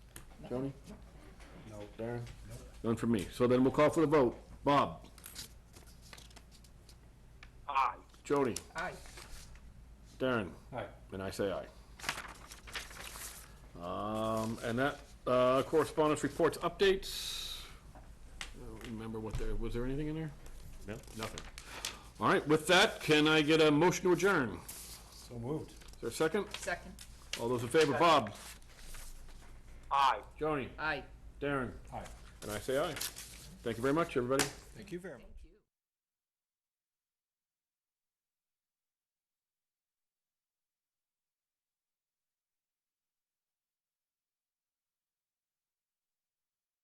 Tony? No. Darren? None from me. So then we'll call for the vote. Bob? Aye. Jody? Aye. Darren? Aye. And I say aye. Um, and that, uh, correspondence reports updates. I don't Remember what there, was there anything in there? No. Nothing. All right, with that, can I get a motion to adjourn? So moved. Is there a second? Second. All those in favor, Bob? Aye. Joni? Aye. Darren? Aye. And I say aye. Thank you very much, everybody. Thank you very much.